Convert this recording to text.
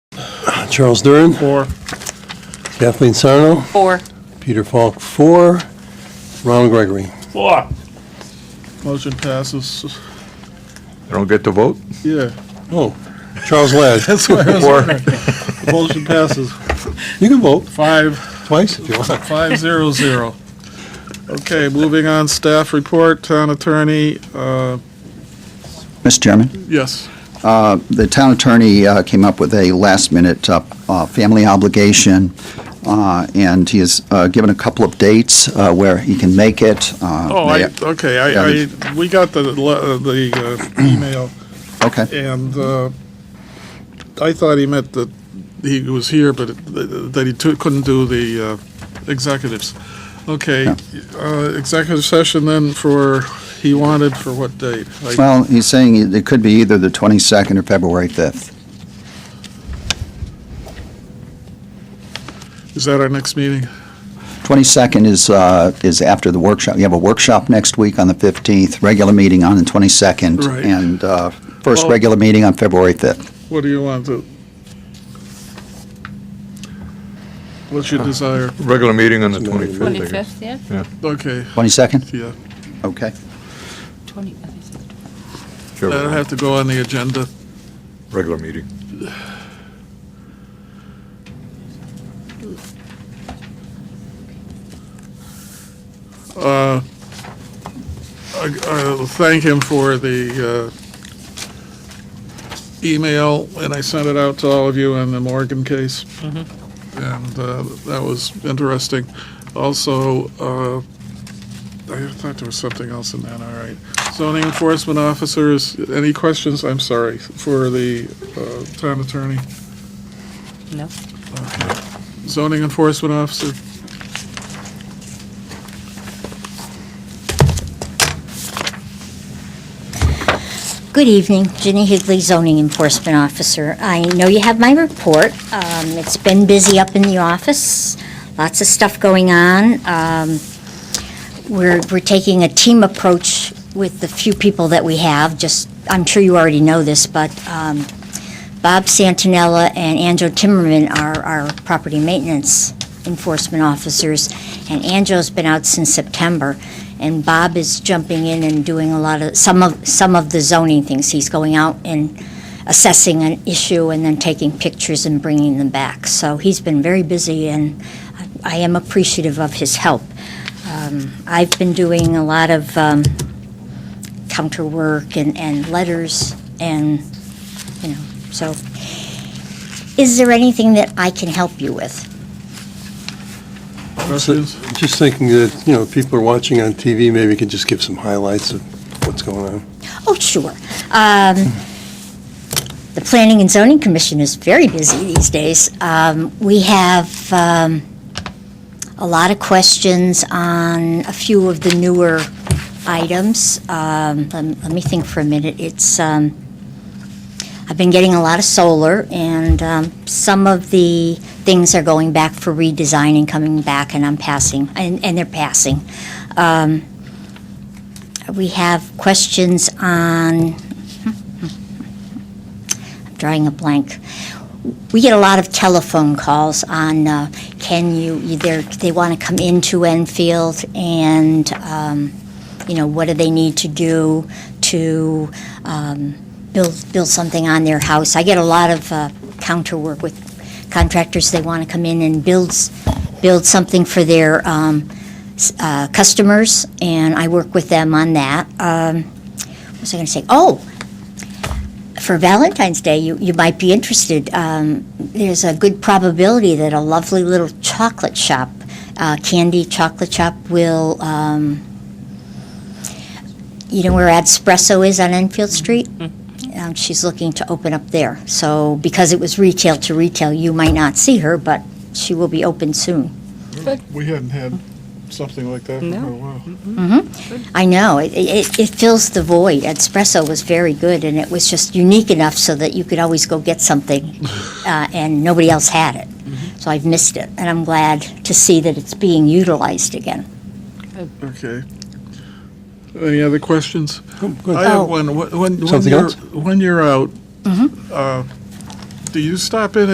Charles Durin, Four. Kathleen Sarno, Four. Peter Falk, four, Ronald Gregory. Four. Motion passes. I don't get to vote? Yeah, Oh, Charles Ladd, that's why I was Four. wondering. Motion passes. you can vote Five, twice if you want. five zero zero. Okay, moving on, staff report, town attorney, uh, Mr. Chairman, yes. uh, the town attorney uh, came up with a last-minute uh, uh, family obligation, uh, and he has uh, given a couple of dates uh, where he can make it. uh, Oh, I, okay, I, I, we got the, le- uh, the uh, email, Okay. and uh, I thought he meant that he was here, but it- that he took- couldn't do the uh, executives. Okay, uh, executive session then for, he wanted for what date? Like, Well, he's saying it- it could be either the 22nd or February 5th. Is that our next meeting? 22nd is, uh, is after the workshop. You have a workshop next week on the 15th, regular meeting on the 22nd, Right. and uh, first Well- regular meeting on February 5th. What do you want to? What's your desire? Regular meeting on the 25th, I guess. 25th, yeah? Okay, 22nd? yeah, Okay. 20, I think so. Sure. that'll have to go on the agenda. Regular meeting. Uh, I- I'll thank him for the uh, email, and I sent it out to all of you on the Morgan case. And uh, that was interesting. Also, uh, I thought there was something else in that, all right. Zoning enforcement officers, any questions, I'm sorry, for the uh, town attorney? No. Zoning enforcement officer? Good evening, Ginny Higley, zoning enforcement officer. I know you have my report. Um, It's been busy up in the office, lots of stuff going on. Um, We're, we're taking a team approach with the few people that we have, just, I'm sure you already know this, but um, Bob Santinella and Anjo Timmerman are our property maintenance enforcement officers, and Anjo's been out since September and Bob is jumping in and doing a lot of, some of, some of the zoning things. He's going out and assessing an issue and then taking pictures and bringing them back. So he's been very busy, and I- I am appreciative of his help. Um, I've been doing a lot of um, counter work and, and letters, and, you know, so. Is there anything that I can help you with? Questions? Just thinking that, you know, people are watching on TV, maybe we could just give some highlights of what's going on. Oh, sure. Um, The Planning and Zoning Commission is very busy these days. Um, We have um, a lot of questions on a few of the newer items. Um, lem- Let me think for a minute. It's, um, I've been getting a lot of solar, and um, some of the things are going back for redesign and coming back, and I'm passing, and and they're passing. Um, We have questions on, I'm drawing a blank. We get a lot of telephone calls on, uh, can you, either, they want to come into Enfield and, um, you know, what do they need to do to um, build, build something on their house? I get a lot of uh, counter work with contractors, they want to come in and build, s- build something for their um, uh, customers, and I work with them on that. Um, What was I going to say? Oh, for Valentine's Day, you, you might be interested. Um, There's a good probability that a lovely little chocolate shop, uh, candy chocolate shop will, um, you know where Espresso is on Enfield Street? Um, She's looking to open up there. So because it was retail to retail, you might not see her, but she will be open soon. We hadn't had something like that for No. a while. I know. It, it, it fills the void. Espresso was very good, and it was just unique enough so that you could always go get something, uh, and nobody else had it. So I've missed it, and I'm glad to see that it's being utilized again. Okay. Any other questions? Oh, I good. Oh. have one. When- When, when Something you're, else? when you're out, uh, do you stop in